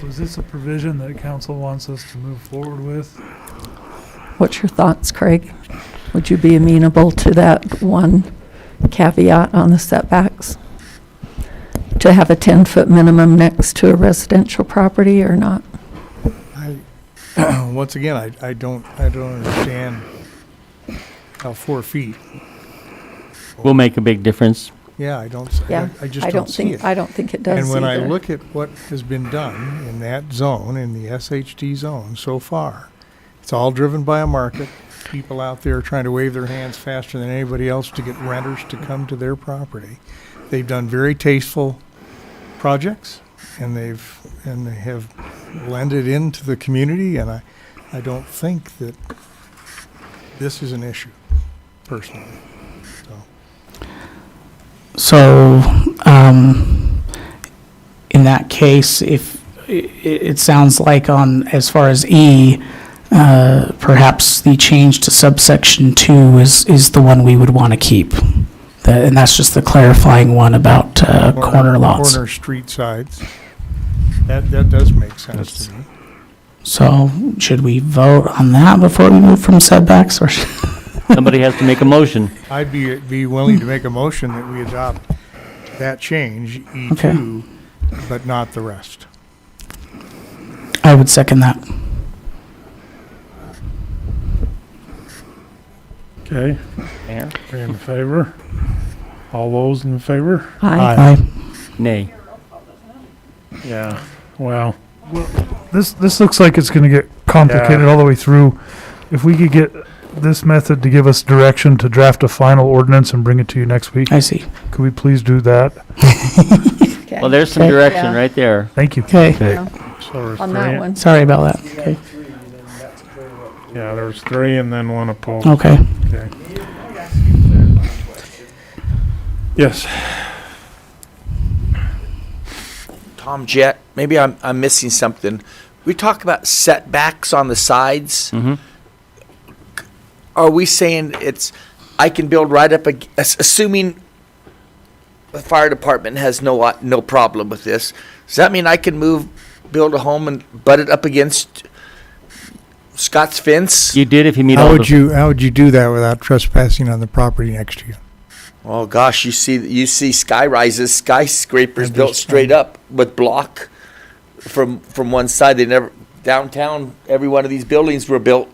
So is this a provision that council wants us to move forward with? What's your thoughts, Craig? Would you be amenable to that one caveat on the setbacks? To have a 10-foot minimum next to a residential property or not? I, once again, I, I don't, I don't understand how four feet, Will make a big difference. yeah, I don't, s- I- Yeah, I just don't see think- it. I don't think it does And when I either. look at what has been done in that zone, in the SHD zone so far, it's all driven by a market. People out there trying to wave their hands faster than anybody else to get renters to come to their property. They've done very tasteful projects and they've, and they have blended into the community and I, I don't think that this is an issue personally. So, um, in that case, if, it, it sounds like on, as far as E, uh, perhaps the change to subsection two is, is the one we would want to keep. Tha- And that's just the clarifying one about, uh, corner lots. Corner street sides. That, that does make sense to me. So should we vote on that before we move from setbacks or? should- Somebody has to make a motion. I'd be, be willing to make a motion that we adopt that change, E2, but not the rest. I would second that. Okay, Mayor? are you in favor? All those in favor? Aye. Aye. Nay. Yeah. Wow. This, this looks like it's gonna get complicated all the way through. If we could get this method to give us direction to draft a final ordinance and bring it to you next week, I see. could we please do that? Okay. Well, there's some Okay. direction Yeah. right there. Thank you. Okay, On that one. sorry about that. Okay, Yeah, there was three and then one opposed. okay. Yes. Tom Jet, maybe I'm, I'm missing something. We talk about setbacks on the sides. Mhm. Are we saying it's, I can build right up, ag- ass- assuming the fire department has no, o- no problem with this, does that mean I can move, build a home and butt it up against Scott's fence? You did if you meet How all would the, you, how would you do that without trespassing on the property next to you? Oh, gosh, you see, you see sky rises, skyscrapers Understand. built straight up with block from, from one side. They never, downtown, every one of these buildings were built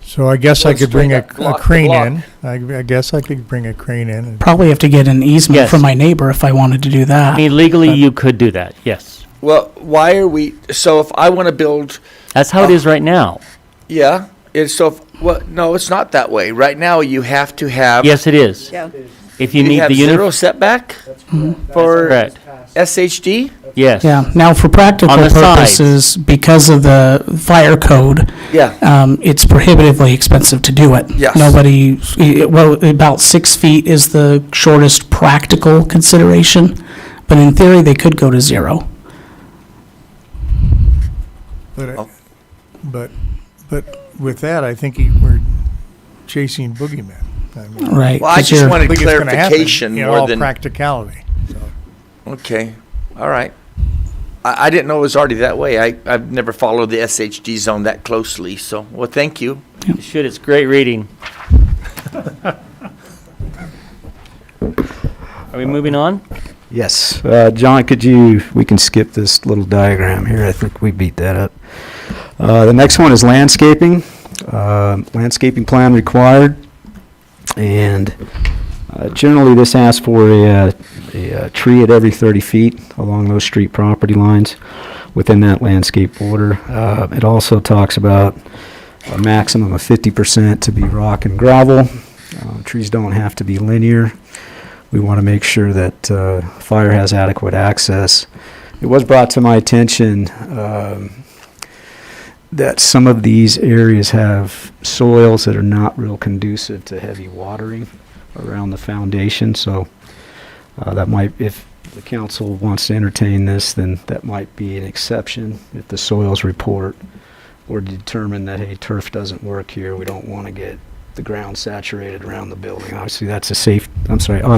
So I guess I Well, could bring straight a up, a block to crane in. I, I guess I could bring a crane in. and- Probably have to get an easement Yes. from my neighbor if I wanted to do I that. mean, legally, you could do that, yes. Well, why are we, so if I want to build, That's how it is right now. yeah, it's so, if- well, no, it's not that way. Right now, you have to have. Yes, it is. Yeah. If you need have the zero uniform, setback for correct, SHD? yes. Yeah, now for practical On the sides. purposes, because of the fire code, Yeah, um, it's prohibitively expensive to do it. Yes. Nobody, i- well, about six feet is the shortest practical consideration, but in theory, they could go to zero. But, I- Oh. but, but with that, I think he- we're chasing boogeymen. I mean, Right. well, I 'cause just you're- I wanted think it's gonna happen clarification in more all than, practicality. okay, all right. I, I didn't know it was already that way. I, I've never followed the SHD zone that closely, so, well, thank you. You should, it's great reading. Are we moving on? Yes. Uh, John, could you, we can skip this little diagram here. I think we beat that up. Uh, The next one is landscaping. Uh, Landscaping plan required. And uh, generally, this asks for a, uh, a uh, tree at every 30 feet along those street property lines within that landscape border. Uh, It also talks about a maximum of 50% to be rock and gravel. Uh, Trees don't have to be linear. We want to make sure that uh, fire has adequate access. It was brought to my attention um, that some of these areas have soils that are not real conducive to heavy watering around the foundation, so uh, that might, if the council wants to entertain this, then that might be an exception if the soils report or determine that, hey, turf doesn't work here, we don't want to get the ground saturated around the building. Obviously, that's a safe, I'm sorry, obviously